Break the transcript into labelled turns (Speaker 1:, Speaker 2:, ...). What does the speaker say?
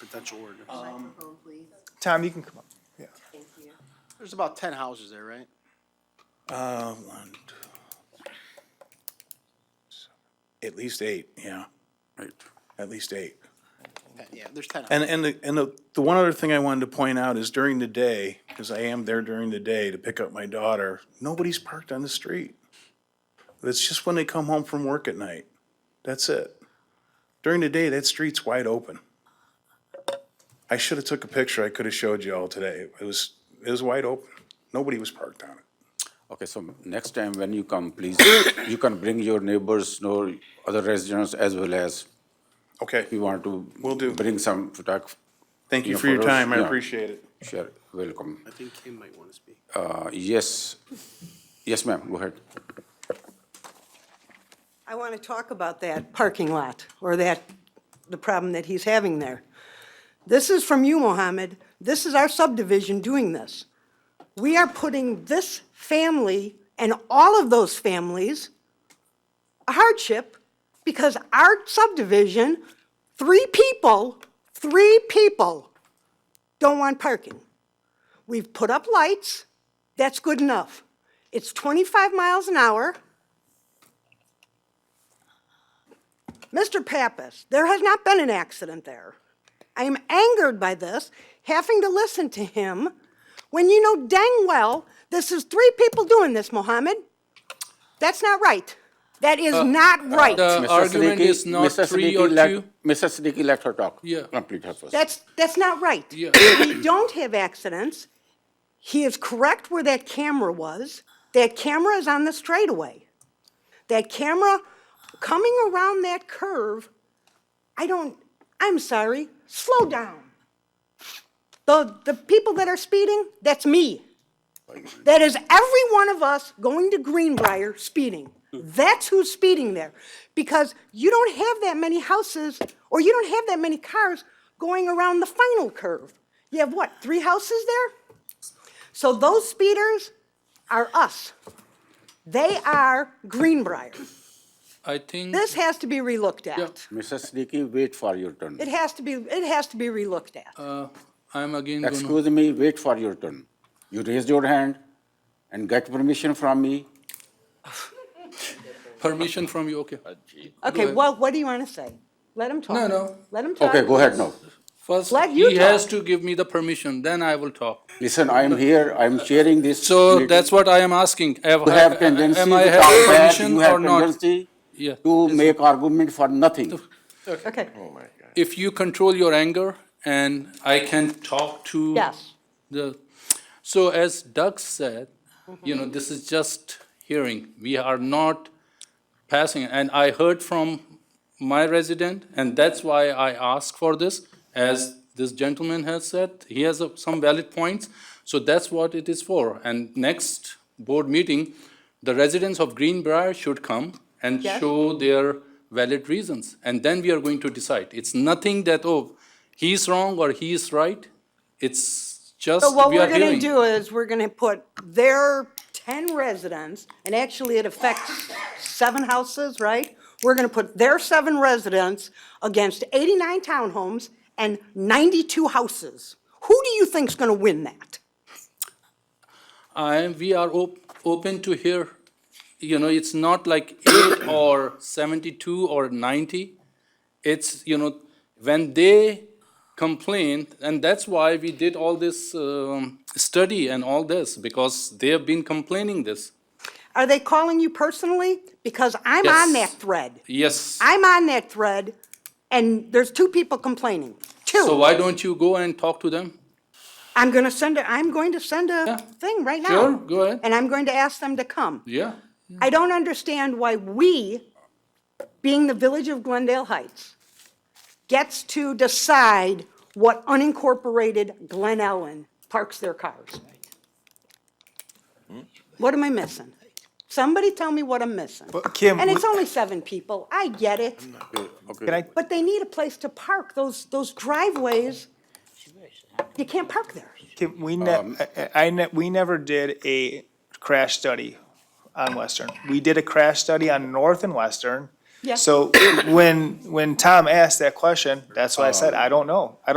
Speaker 1: potential ordinance.
Speaker 2: Microphone, please.
Speaker 3: Tom, you can come up. Yeah.
Speaker 2: Thank you.
Speaker 1: There's about ten houses there, right?
Speaker 4: Uh, one, two, at least eight, yeah,
Speaker 5: Right.
Speaker 4: at least eight.
Speaker 1: Ten- Yeah, there's ten.
Speaker 4: And, and, the- and the, the one other thing I wanted to point out is during the day, because I am there during the day to pick up my daughter, nobody's parked on the street. That's just when they come home from work at night. That's it. During the day, that street's wide open. I should have took a picture. I could have showed you all today. It was, it was wide open. Nobody was parked on it.
Speaker 5: Okay, so next time when you come, please, you can bring your neighbors or other residents as well as
Speaker 4: Okay,
Speaker 5: you want to.
Speaker 4: Will do.
Speaker 5: Bring some photog,
Speaker 4: thank you
Speaker 5: Yeah,
Speaker 4: for your
Speaker 5: for us,
Speaker 4: time. I
Speaker 5: yeah.
Speaker 4: appreciate it.
Speaker 5: sure, welcome.
Speaker 1: I think Kim might want to speak.
Speaker 5: Uh, yes, yes, ma'am, go ahead.
Speaker 6: I want to talk about that parking lot, or that, the problem that he's having there. This is from you, Mohammed. This is our subdivision doing this. We are putting this family and all of those families a hardship because our subdivision, three people, three people don't want parking. We've put up lights, that's good enough. It's 25 miles an hour. Mr. Pappas, there has not been an accident there. I am angered by this, having to listen to him, when you know dang well this is three people doing this, Mohammed. That's not right. That is not right.
Speaker 7: The
Speaker 5: Mr.
Speaker 7: argument
Speaker 5: Siddiqui-
Speaker 7: is not
Speaker 5: Mr.
Speaker 7: three
Speaker 5: Siddiqui
Speaker 7: or
Speaker 5: let-
Speaker 7: two.
Speaker 5: Mr. Siddiqui, let her talk.
Speaker 7: Yeah.
Speaker 5: Complete her first.
Speaker 6: That's, that's not right.
Speaker 7: Yeah.
Speaker 6: We don't have accidents. He is correct where that camera was. That camera is on the straightaway. That camera coming around that curve, I don't, I'm sorry, slow down. The, the people that are speeding, that's me. That is every one of us going to Greenbrier speeding. That's who's speeding there. Because you don't have that many houses, or you don't have that many cars going around the final curve. You have what, three houses there? So those speeders are us. They are Greenbrier.
Speaker 7: I think
Speaker 6: This has to be relooked at.
Speaker 5: Mr. Siddiqui, wait for your turn.
Speaker 6: It has to be, it has to be relooked at.
Speaker 7: uh, I'm again gonna,
Speaker 5: Excuse me, wait for your turn. You raised your hand and get permission from me.
Speaker 7: permission from you, okay.
Speaker 6: Okay, well, what do you want to say? Let him talk.
Speaker 7: No, no.
Speaker 6: Let him talk.
Speaker 5: Okay, go ahead now.
Speaker 7: First,
Speaker 6: Let you
Speaker 7: he has
Speaker 6: talk.
Speaker 7: to give me the permission, then I will talk.
Speaker 5: Listen, I am here, I am sharing this.
Speaker 7: So
Speaker 5: meeting.
Speaker 7: that's what I am asking. Have,
Speaker 5: You have tendency
Speaker 7: am I
Speaker 5: to talk
Speaker 7: having
Speaker 5: back,
Speaker 7: permission
Speaker 5: you
Speaker 7: or
Speaker 5: have
Speaker 7: not?
Speaker 5: tendency
Speaker 7: Yeah.
Speaker 5: to make argument for nothing.
Speaker 6: Okay,
Speaker 5: Oh
Speaker 7: If you control your anger and I can talk to
Speaker 6: yes.
Speaker 7: the, so as Doug said, you know, this is just hearing. We are not passing, and I heard from my resident, and that's why I asked for this. As this gentleman has said, he has uh, some valid points, so that's what it is for. And next board meeting, the residents of Greenbrier should come and
Speaker 6: Yes.
Speaker 7: show their valid reasons, and then we are going to decide. It's nothing that, oh, he's wrong or he's right. It's just
Speaker 6: So what
Speaker 7: we are
Speaker 6: we're gonna
Speaker 7: hearing.
Speaker 6: do is, we're gonna put their ten residents, and actually it affects seven houses, right? We're gonna put their seven residents against eighty-nine townhomes and ninety-two houses. Who do you think's gonna win that?
Speaker 7: I am, we are op- open to hear, you know, it's not like eight or seventy-two or ninety. It's, you know, when they complain, and that's why we did all this, um, study and all this, because they have been complaining this.
Speaker 6: Are they calling you personally? Because I'm on that
Speaker 7: Yes.
Speaker 6: thread.
Speaker 7: Yes.
Speaker 6: I'm on that thread, and there's two people complaining.
Speaker 7: So
Speaker 6: Two.
Speaker 7: why don't you go and talk to them?
Speaker 6: I'm gonna send a, I'm going to send a thing right now.
Speaker 7: Sure, go ahead.
Speaker 6: And I'm going to ask them to come.
Speaker 7: Yeah.
Speaker 6: I don't understand why we, being the village of Glendale Heights, gets to decide what unincorporated Glen Ellen parks their cars. What am I missing? Somebody tell me what I'm missing.
Speaker 3: But Kim,
Speaker 6: And it's
Speaker 3: we-
Speaker 6: only seven people, I get it,
Speaker 3: Can I,
Speaker 6: but they need a place to park, those, those driveways, you can't park there.
Speaker 3: Kim, we ne, I- I, ne, we never did a crash study on Western. We did a crash study on North and Western.
Speaker 6: Yeah.
Speaker 3: So when, when Tom asked that question, that's why I said, I don't know. I don't